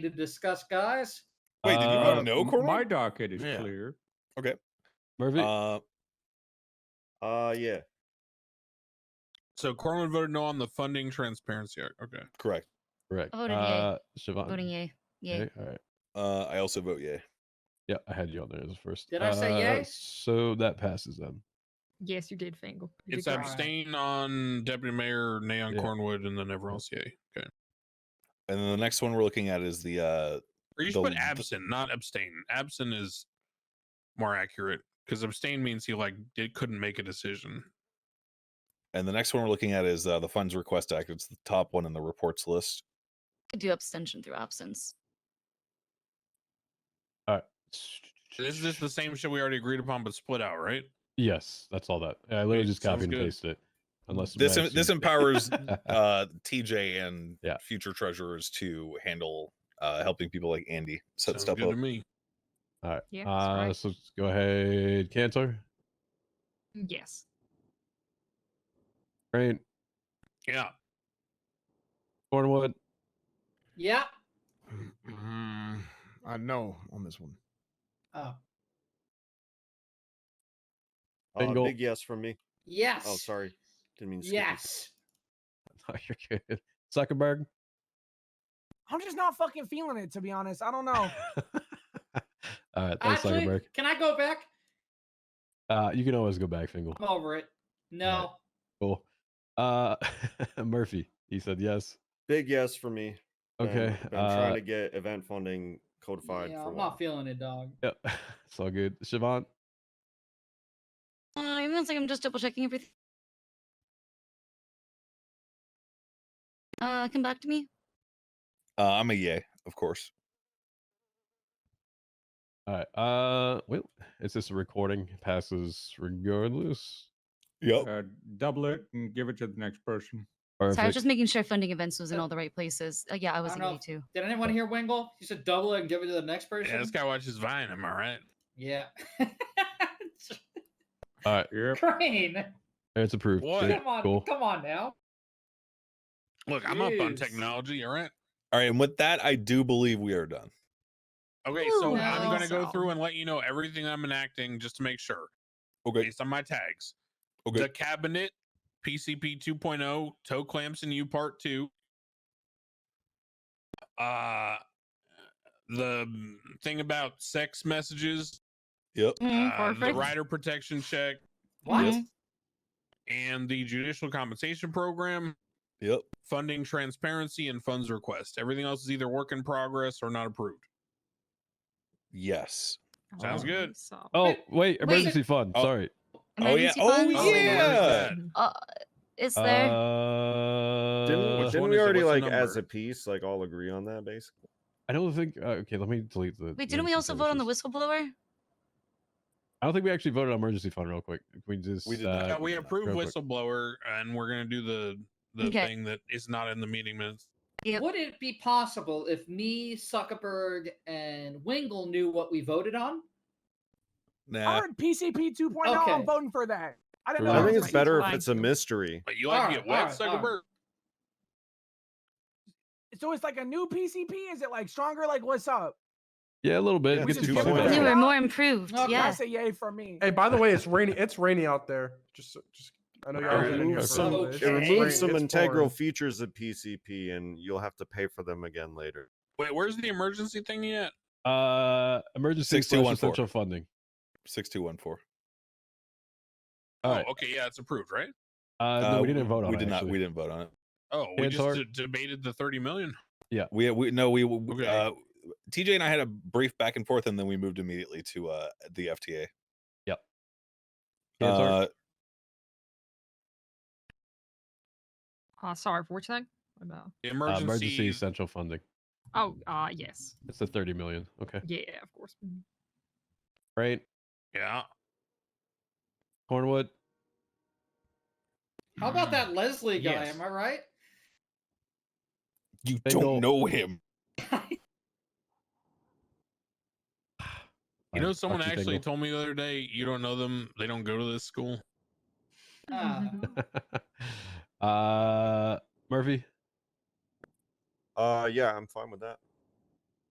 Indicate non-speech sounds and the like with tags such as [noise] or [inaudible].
to discuss, guys? Wait, did you vote no, Uh, m- Cornwall? My docket is Yeah. clear. Okay. Murphy, Uh, Uh, yeah. So Cornwood voted no on the funding transparency act. Okay. correct. correct. I voted yay. uh, Siobhan. Voting yay. Yay. All right. Uh, I also vote yeah. Yeah, I had you on there as first. Did I say Uh, yay? So that passes then. Yes, you did, Fangle. You It's did great. abstain on Deputy Mayor Neon Yeah. Cornwood and then everyone else yay. Okay. And then the next one we're looking at is the uh, Or The- you should put the- absent, not abstain. Absent is more accurate because abstain means he like did, couldn't make a decision. and the next one we're looking at is uh, the Funds Request Act. It's the top one in the reports list. Could do abstention through absence. Is this the same shit we already agreed upon but split out, right? Yes, that's all that. I literally Okay, just sounds copied and good. pasted it. Unless This Max, em- this you- [laughs] empowers [laughs] Uh, TJ and Yeah. future treasurers to handle uh, helping people like Andy set Sounds stuff good up. to me. Yeah, that's uh, right. So let's go ahead, Cantor. Yes. Right, Yeah. Cornwood. [laughs] Yeah. Mm, I know on this one. Oh, Uh, Bingo. big yes from me. yes. Oh, sorry. Didn't mean to skip you. Yes. No, you're good. Zuckerberg. I'm just not fucking feeling it, to be honest. I [laughs] don't know. all right, thanks, Actually, Zuckerberg. can I go back? Uh, you can always go back, Fingal. I'm over it. No. Cool. Uh, [laughs] Murphy. He said yes. Big yes for me. and Okay. I've been Uh, trying to get event funding codified yeah, for I'm one. not feeling it, dog. yeah, [laughs] it's all good. Siobhan. Uh, I'm like I'm just double checking everything. Uh, come back to me. Uh, I'm a yay, of course. All right. Uh, well, it's just a recording. Passes regardless. Yep. Okay. Okay. Oh. Uh, double it and give it to the next person. Sorry, I was Perfect. just making sure funding events was in all the right places. Uh, yeah, I was I in don't A too. Did anyone hear Wingle? He said double it and give it to the next person. Yeah, this guy watches Vine. Am I right? Yeah. [laughs] All right. Yep. Crane. It's approved. What? Sweet, Come on. Cool. Come on now. Look, I'm up on Jeez. technology. All right. All right, and with that, I do believe we are done. Okay, Ooh, so I'm no. gonna go So- through and let you know everything I'm enacting just to make sure, Okay. based on my tags. Okay. The cabinet, PCP 2.0, oh, toe clamps and U part two. Uh the mm, thing about sex messages, Yep. uh, the Mm, Perfect. rider protection check, What? Yes. and the judicial compensation program, Yep. funding transparency, and funds request. Everything else is either work in progress or not approved. Yes. Sounds Oh, good. so- Oh Wait, wait, emergency fund. Oh, Sorry. Oh yeah. Emergency Oh E funds? Oh, wait, where's yeah. that? Uh, is there? Uh, Didn't, which didn't one we is it? already What's like the as number? a piece like all agree on that basically? I don't think. Uh, okay, let me delete the. Wait, didn't we emergency also vote on the services. whistleblower? I don't think we actually voted on emergency fund. Real quick, Can we just. did uh, not. Yeah, we real approved quick? whistleblower, and we're gonna do the the Okay. thing that is not in the meeting minutes. Yep. Would it be possible if me, Zuckerberg, and Wingle knew what we voted on? I Nah. heard PCP 2.0. Okay. oh, I'm voting for that. I didn't know. Right. I that think was it's my better if line. it's a mystery. But you like to Alright, get wet, alright, alright. Zuckerberg. So it's like a new PCP. Is it like stronger? Like what's up? Yeah, a little bit. Yeah, Get it's you a fucking two-point back. Yeah. Newer, more improved. Okay. I Yeah. say yay for me. Hey, by the way, it's rainy. It's rainy out there. Just, so- just I know y'all It have been in here removes for some, a little it bit. removes some It's integral boring. features of PCP, and you'll have to pay for them again later. Wait, where's the emergency thing yet? Uh, emergency slash 6214. essential funding. Six two one four. All oh, right. okay, yeah, it's approved, right? Uh, no, we didn't vote on. We it, did not. actually. We didn't vote on it. Oh, we Hands just are- d- debated the thirty million. We we no we w- Okay. uh, TJ and I had a brief back and forth, and then we moved immediately to uh the FTA. Hands are- Uh, Uh, sorry, for which thing? About. The uh, emergency, emergency essential funding. Oh, uh, yes. It's the thirty million. Okay. Yeah, of course. Mhm. Right. yeah. Cornwood. How Mm. Mm. about that Leslie guy? Yes. Am I right? you They don't- don't know him. [laughs] You know, Fine, someone fuck you, actually Fingal. told me the other day, you don't know them, they don't go to this school. 啊 Ah. [laughs] uh, Murphy. Uh, yeah, I'm fine with that.